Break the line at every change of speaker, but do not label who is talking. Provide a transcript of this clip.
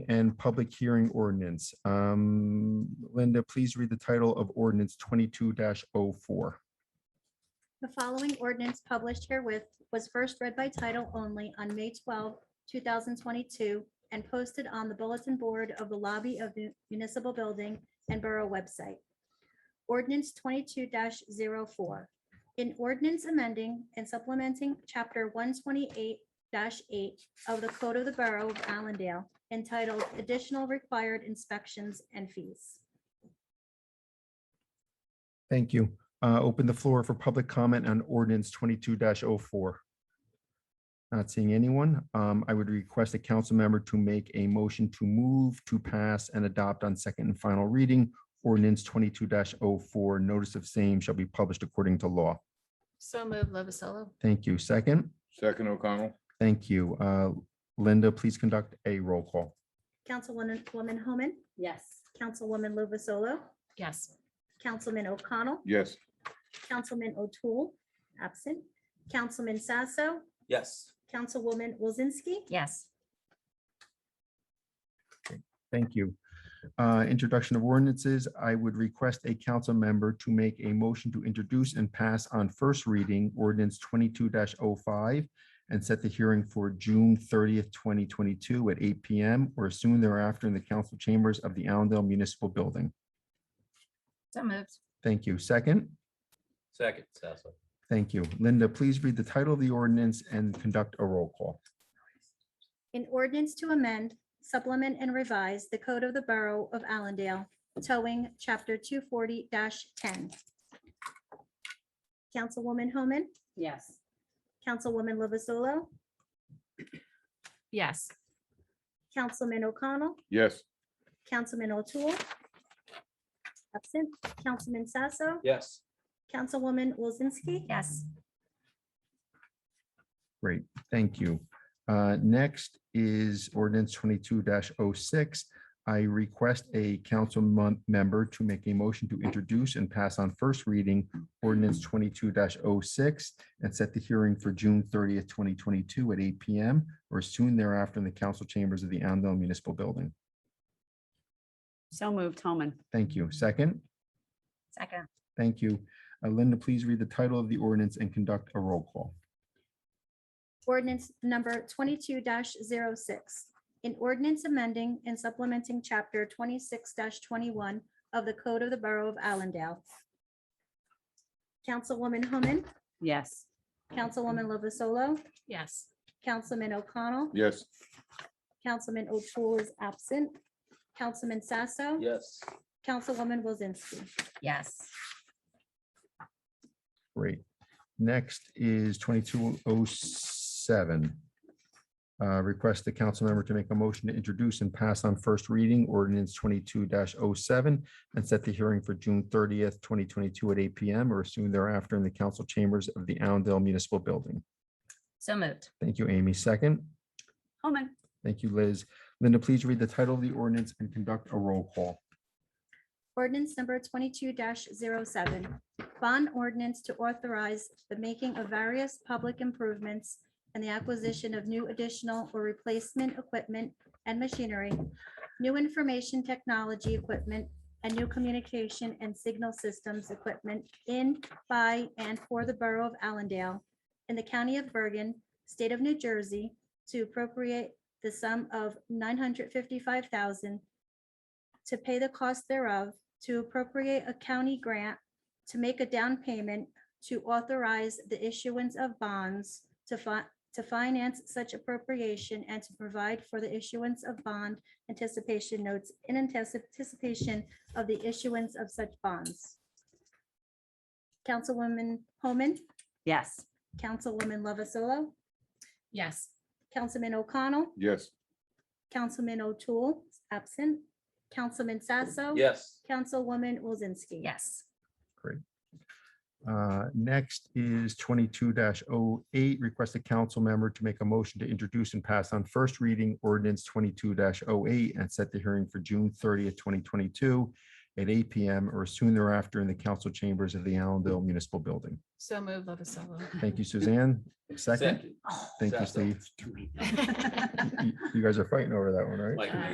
and public hearing ordinance. Um, Linda, please read the title of ordinance twenty-two oh 4
The following ordinance published herewith was first read by title only on May 12, 2022, and posted on the bulletin board of the lobby of the municipal building and borough website. Ordinance 22-04. In ordinance amending and supplementing Chapter 128-8 of the Code of the Borough of Allendale entitled Additional Required Inspections and Fees.
Thank you. Uh, open the floor for public comment on ordinance twenty-two 4 Not seeing anyone. Um, I would request a council member to make a motion to move to pass and adopt on second and final reading. Ordinance twenty-two 4 notice of same shall be published according to law.
So move Lovasolo.
Thank you. Second,
Second O'Connell,
thank you. Uh, Linda, please conduct a roll call.
Councilwoman Woman Homan,
Yes.
Councilwoman Luvasolo,
Yes.
Councilman O'Connell,
yes.
Councilman O'Toole, absent, Councilman Sasso,
yes,
Councilwoman Wozinski,
Yes.
Thank you. Uh, Introduction of ordinances, I would request a council member to make a motion to introduce and pass on first reading ordinance twenty-two 5 and set the hearing for June thirtieth, twenty twenty-two at eight PM or soon thereafter in the council chambers of the Allendale Municipal Building.
So moved.
Thank you. Second,
second, Sasso,
thank you. Linda, please read the title of the ordinance and conduct a roll call.
in ordinance to amend, supplement, and revise the Code of the Borough of Allendale, towing, Chapter 240-10. Councilwoman Homan,
Yes.
Councilwoman Lovasolo,
Yes.
Councilman O'Connell,
Yes,
Councilman O'Toole, absent, Councilman Sasso,
yes,
Councilwoman Wozinski,
Yes.
Great, thank you. Uh, Next is ordinance twenty-two 6 I request a council mon- member to make a motion to introduce and pass on first reading ordinance twenty-two 6 and set the hearing for June thirtieth, twenty twenty-two at eight PM or soon thereafter in the council chambers of the Allendale Municipal Building.
So moved Homan.
Thank you. Second,
Second.
thank you. Uh, Linda, please read the title of the ordinance and conduct a roll call.
Ordinance number twenty-two 6 An ordinance amending and supplementing chapter twenty-six twenty-one of the Code of the Borough of Allendale. Councilwoman Homan,
Yes.
Councilwoman Lovasolo,
Yes.
Councilman O'Connell,
yes,
Councilman O'Toole is absent, Councilman Sasso,
yes,
Councilwoman Wozinski.
Yes.
Great. Next is twenty-two oh seven. Uh, Request the council member to make a motion to introduce and pass on first reading ordinance twenty-two 7 and set the hearing for June thirtieth, twenty twenty-two at eight PM or soon thereafter in the council chambers of the Allendale Municipal Building.
So moved.
Thank you, Amy. Second.
Homan.
Thank you, Liz. Linda, please read the title of the ordinance and conduct a roll call.
Ordinance number twenty-two 7 bond ordinance to authorize the making of various public improvements and the acquisition of new additional or replacement equipment and machinery, new information technology equipment, and new communication and signal systems equipment in, by, and for the Borough of Allendale in the County of Bergen, State of New Jersey, to appropriate the sum of nine hundred fifty-five thousand to pay the cost thereof, to appropriate a county grant, to make a down payment, to authorize the issuance of bonds, to fi- to finance such appropriation and to provide for the issuance of bond anticipation notes in anticipation of the issuance of such bonds. Councilwoman Homan,
Yes.
Councilwoman Lovasolo,
Yes.
Councilman O'Connell,
yes,
Councilman O'Toole, absent, Councilman Sasso.
yes,
Councilwoman Wozinski.
Yes.
Uh, Next is twenty-two 8 request a council member to make a motion to introduce and pass on first reading ordinance twenty-two 8 and set the hearing for June thirtieth, twenty twenty-two at eight PM or soon thereafter in the council chambers of the Allendale Municipal Building.
So move Lovasolo.
Thank you, Suzanne. Second,
second,
Oh.
thank you,
Sasso.
Steve. You you guys are fighting over that one, right?
Mike.